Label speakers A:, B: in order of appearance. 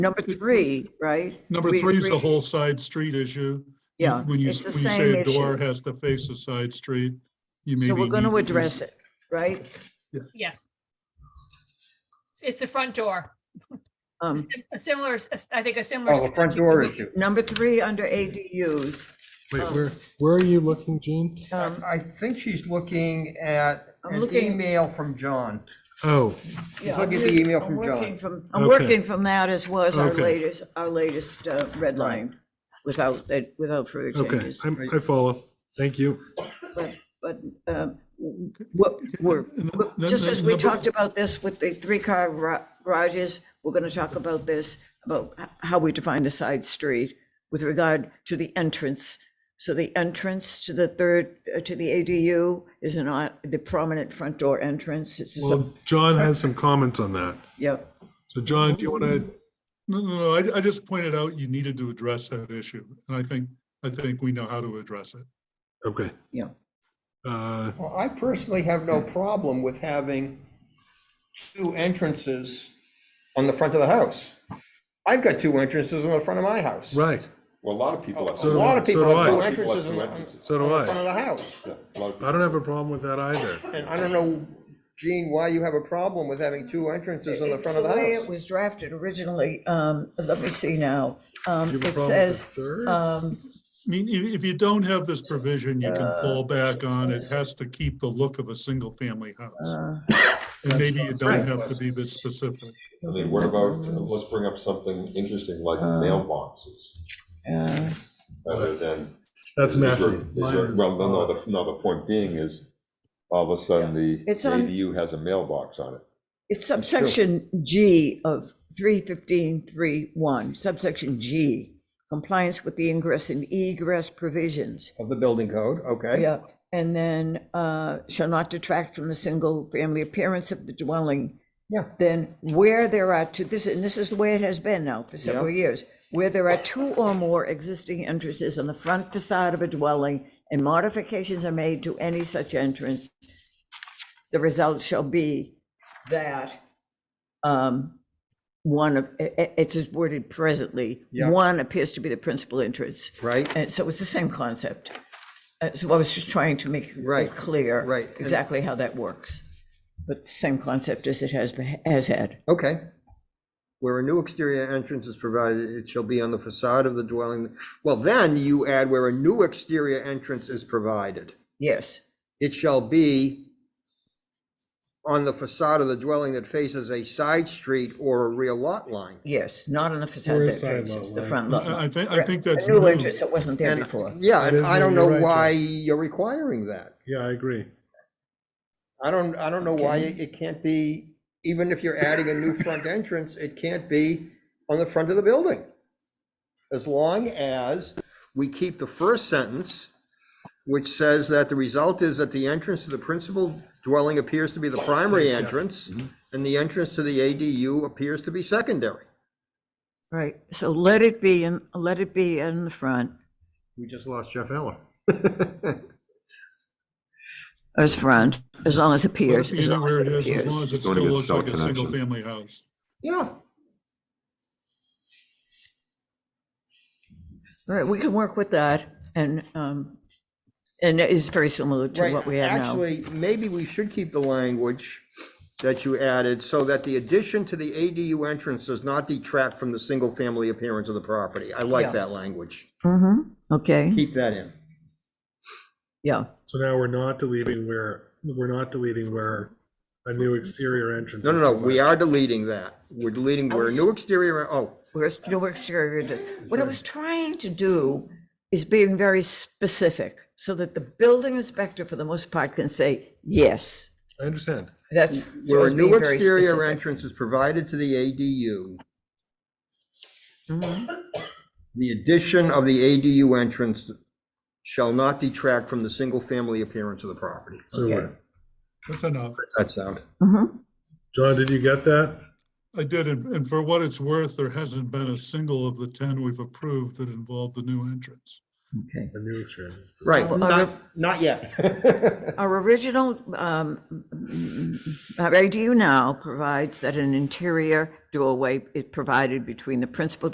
A: Number three, right?
B: Number
A: We
B: three is the
A: agree-
B: whole side street issue.
A: Yeah,
B: When you,
A: it's the
B: when you
A: same
B: say a door
A: issue.
B: has to face a side street, you maybe.
A: So we're going
B: need
A: to address it, right?
C: Yes. It's the front door.
A: Um,
C: A similar, I think a similar.
D: Oh, the front door issue.
A: Number three, under ADUs,
E: Wait, where, where are you looking, Gene?
D: I I think she's looking at
A: Um, I'm
D: an
A: looking-
D: email from John.
E: Oh,
A: Yeah,
D: look
A: I'm
D: at the
A: just-
D: email
A: I'm
D: from
A: working
D: John.
A: from- I'm
E: Okay.
A: working from that as was our
E: Okay.
A: latest, our latest uh, red line without, uh, without further
E: okay,
A: changes.
E: I'm- I follow. Thank you.
A: But, but um, what, we're,
B: And then-
A: we're-
B: then-
A: just as
B: then
A: we
B: number-
A: talked about this with the three-car gra- garages, we're going to talk about this, about h- how we define the side street with regard to the entrance. So the entrance to the third, uh, to the ADU is not the prominent front door entrance. It's, a sub-
E: Well, John has some comments on that.
A: yeah,
E: So John, do you want to,
B: No, no, no, I, I just pointed out you needed to address that issue, and I think, I think we know how to address it.
E: okay.
A: yeah.
E: Uh,
D: Well, I personally have no problem with having two entrances on the front of the house. I've got two entrances on the front of my house.
E: Right,
F: Well, a lot of people have.
D: Oh, A
E: do
D: lot
E: I.
D: of people
E: So
D: have
E: do
D: two
E: I.
F: People have
D: entrances
F: two
D: on the on
F: entrances.
D: the
E: So do I.
D: front of the house.
F: Yeah, a lot of people.
E: I don't have a problem with that either.
D: And I don't know, Gene, why you have a problem with having two entrances on the
A: It's
D: front of the
A: way
D: house.
A: It was drafted originally, um, let me see now. Um,
E: Do you have a
A: it
E: problem with the
A: says,
E: third?
A: um,
B: I mean, if, if you don't have this provision, you can
A: Uh,
B: fall back on, it has to keep the look of a single-family house.
A: Uh,
B: And maybe you don't have to be this specific.
F: I mean, what about, let's bring up something interesting like mailboxes,
A: uh,
F: rather than.
E: That's
F: Is there-
E: massive.
F: is there- Well, no, no, the, no, the point being is, all of a sudden, the
A: It's on-
F: ADU has a mailbox on it.
A: It's subsection G of three fifteen three one, subsection G, compliance with the ingress and egress provisions.
D: Of the building code, okay.
A: Yeah, and then uh, shall not detract from the single-family appearance of the dwelling.
D: Yeah.
A: Then where there are two, this, and this is the way it has been now for several years, where there are two or more existing entrances on the front facade of a dwelling, and modifications are made to any such entrance, the result shall be that um, one of, i- i- it's as worded presently,
D: Yeah.
A: one appears to be the principal entrance.
D: Right.
A: And so it's the same concept. Uh, So I was just trying to make
D: Right,
A: it clear.
D: right. And-
A: Exactly how that works. But same concept as it has, been- has had.
D: Okay. Where a new exterior entrance is provided, it shall be on the facade of the dwelling. Well, then you add where a new exterior entrance is provided.
A: Yes,
D: It shall be on the facade of the dwelling that faces a side street or a rear lot line.
A: yes, not on the
E: Or
A: facade
E: a
A: that
E: side lot
A: faces the
E: line.
A: front lot.
B: I, I
A: line.
B: think, I think that's.
A: A new
B: new.
A: entrance that wasn't there
D: And,
A: before.
D: yeah,
E: That
D: and
E: is
D: I don't
E: new,
D: know
E: you're right,
D: why you're requiring that.
E: Yeah, I agree.
D: I don't, I don't know why it it can't be, even if you're adding a new front entrance, it can't be on the front of the building. As long as we keep the first sentence, which says that the result is that the entrance to the principal dwelling appears to be the primary entrance, and the entrance to the ADU appears to be secondary.
A: Right, so let it be, in let it be in the front,
D: We just lost Jeff Eller.
A: as front, as long as it
B: Let
A: appears,
B: it be
A: as long as
B: where it
A: it
B: is, as long
A: appears.
B: as it
F: Don't
B: still
F: even
B: looks
F: sell
B: like a
F: connection.
B: single-family house.
D: Yeah.
A: Right, we can work with that and, um, and it's very similar to
D: Right,
A: what we have now.
D: Actually, maybe we should keep the language that you added, so that the addition to the ADU entrance does not detract from the single-family appearance of the property. I
A: Yeah.
D: like that language.
A: Mm-hmm, okay,
D: Keep that in.
A: yeah,
E: So now we're not deleting where, we're not deleting where a new exterior entrance.
D: No,
E: is
D: no, no, we
E: provided.
D: are deleting that. We're deleting where a new exterior, oh,
A: where's, no exterior does. What I was trying to do is being very specific, so that the building inspector, for the most part, can say, yes,
E: I understand.
A: that's. so
D: where a
A: it's
D: new
A: being very
D: exterior
A: specific.
D: entrance is provided to the ADU.
A: Mm-hmm.
D: The addition of the ADU entrance shall not detract from the single-family appearance of the property.
E: So,
A: Okay.
E: we're-
B: That's enough.
D: That sound.
A: Mhm.
E: John, did you get that?
B: I did, and and for what it's worth, there hasn't been a single of the 10 we've approved that involved the new entrance.
A: Okay.
E: a new exterior.
D: Right,
A: Well,
D: not,
A: our-
D: not yet.
A: Our original, um, uh, our ADU now provides that an interior doorway is provided between the principal